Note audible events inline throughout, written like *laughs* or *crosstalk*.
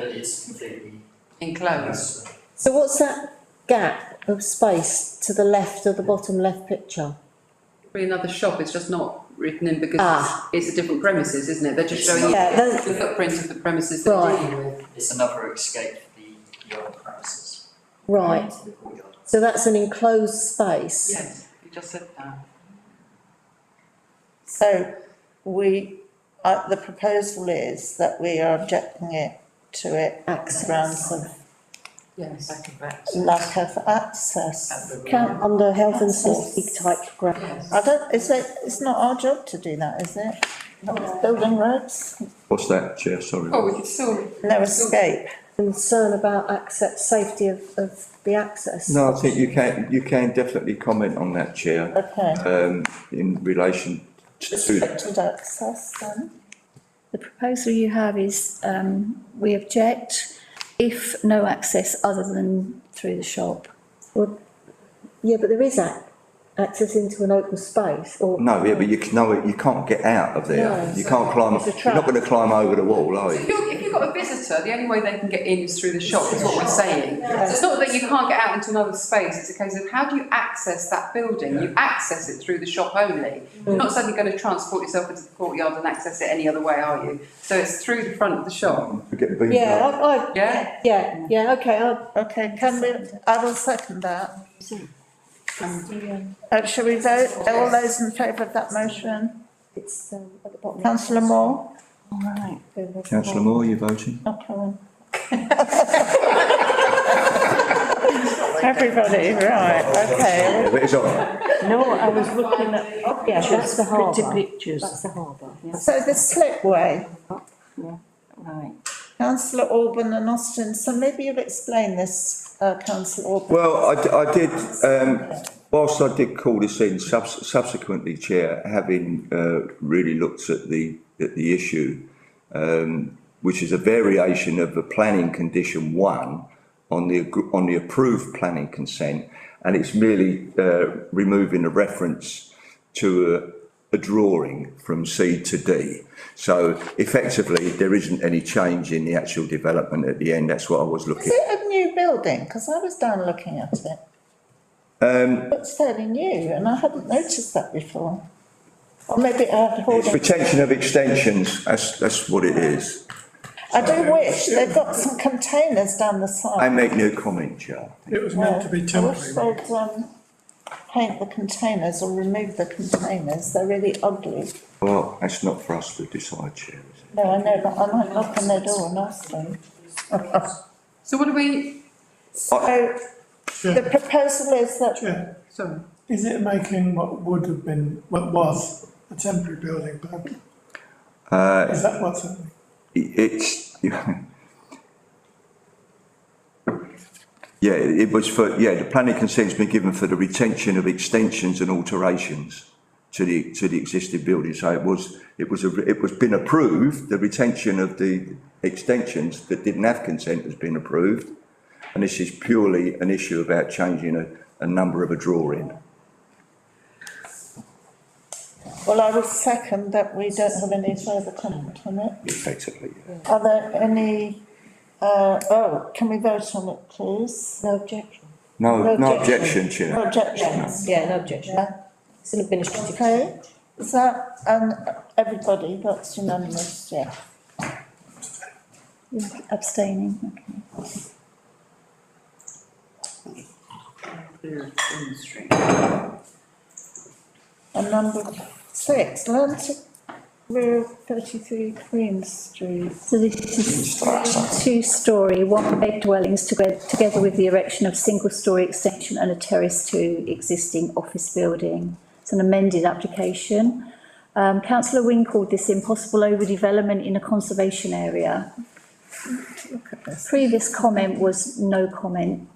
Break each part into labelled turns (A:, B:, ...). A: that it's completely.
B: enclosed.
C: So what's that gap of space to the left of the bottom left picture?
B: Probably another shop, it's just not written in because
C: Ah.
B: it's it's a different premises, isn't it? They're just showing you
C: Yeah, that's-
B: the footprint of the premises that we're
C: Right.
B: dealing with.
A: It's another escape for the, the old premises.
C: Right,
A: Into the courtyard.
C: so that's an enclosed space.
B: Yes, you just said that.
D: So we, uh, the proposal is that we are objecting it to it on grounds of
B: Yes,
D: lack of access.
C: Count under health and safety type ground.
B: yes.
D: I don't, is it, it's not our job to do that, is it? Not with Building roads,
E: What's that, Chair, sorry?
B: Oh, we could still,
D: no escape.
C: Concern about access, safety of, of the access.
E: No, I think you can, you can definitely comment on that, Chair,
D: Okay,
E: um, in relation to that.
D: restricted access then.
F: The proposal you have is, um, we object if no access other than through the shop.
C: Yeah, but there is ac- access into an open space or.
E: No, yeah, but you can, no, you can't get out of there.
C: No.
E: You can't climb,
C: It's a
E: you're not gonna climb over the wall, are
B: if
E: you?
B: you're, if you've got a visitor, the only way they can get in is through the shop, is what we're saying. So it's not that you can't get out into another space, it's a case of how do you access that building? You access it through the shop only. You're not suddenly going to transport yourself into the courtyard and access it any other way, are you? So it's through the front of the shop,
E: You get beaten
C: Yeah,
E: up.
C: I, I,
B: *laughs* yeah?
C: yeah, yeah, okay, I,
D: Okay, can we, I will second that. Uh, shall we vote, all those in favour of that motion?
C: it's, um, at the bottom.
D: Councillor Moore?
E: Councillor Moore, you voting?
D: Okay. *laughs* Everybody, right, okay.
E: Yeah, but it's all right.
C: No, I was looking at, oh, yeah, that's the harbour.
G: pictures.
C: That's the harbour.
D: So the slipway,
G: Right.
D: councillor Orban and Austin, so maybe you'll explain this, uh, councillor Orban.
E: Well, I, d- I did, um, whilst I did call this in subs- subsequently, Chair, having, uh, really looked at the, at the issue, um, which is a variation of the planning condition one on the, agr- on the approved planning consent, and it's merely, uh, removing a reference to a, a drawing from C to D. So effectively, there isn't any change in the actual development at the end, that's what I was
D: Is
E: looking.
D: it a new building? Because I was down looking at it. Um. Looks fairly new and I hadn't noticed that before. Or maybe I had
E: It's
D: hoarding.
E: protection of extensions, that's, that's what it is.
D: I do wish, they've got some containers down the side.
E: I make no comment, Chair.
H: It was meant to be temporary.
D: I
H: wasn't
D: wish they'd, um, paint the containers or remove the containers, they're really ugly.
E: Well, that's not for us to decide, Chair, is it?
D: No, I know, but I might knock on their door and ask them.
B: So what do we,
D: So, the
H: it?
D: proposal is that,
H: Chair,
B: sorry,
H: is it making what would have been, what was a temporary building permanent?
E: Uh,
H: Is that what's happening?
E: it- it's, yeah, it was for, yeah, the planning consent's been given for the retention of extensions and alterations to the, to the existing building, so it was, it was, a- it was been approved, the retention of the extensions that didn't have consent has been approved, and this is purely an issue about changing a, a number of a drawing.
D: well, I would second that we don't have any further comment on it.
E: effectively. yeah.
D: Are there any, uh, oh, can we vote on it, please?
C: No objection.
E: No,
C: No
E: no objection, Chair.
D: No objections?
C: Yeah, no objection.
D: Yeah.
C: It's an administrative.
D: Okay, is that, um, everybody, that's unanimous, yeah.
F: You're Abstaining, okay.
D: And number six, Atlantic Road thirty-three Queen Street.
F: So this is two-storey, one-bed dwellings toge- together with the erection of single-storey extension and a terrace to existing office building. It's an amended application. Um, councillor Wing called this impossible overdevelopment in a conservation area. Previous comment was no comment.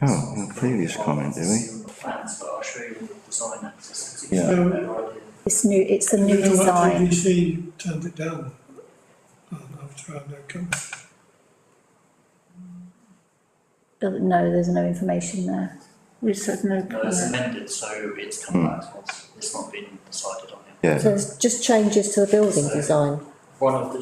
E: Oh, well, previous comment, do we?
A: See all the Plans, but I'll show you all the design access.
E: Yeah.
H: So-
F: It's new, it's a new
H: You know what,
F: design.
H: TDC turned it down. And after I had no comment.
F: Doesn't- No, there's no information there.
D: We said no
A: No, it's
D: comment.
A: amended, so it's come
E: Hmm.
A: back to us, it's not been decided on yet.
E: Yeah.
C: So it's just changes to the building design.
A: One of the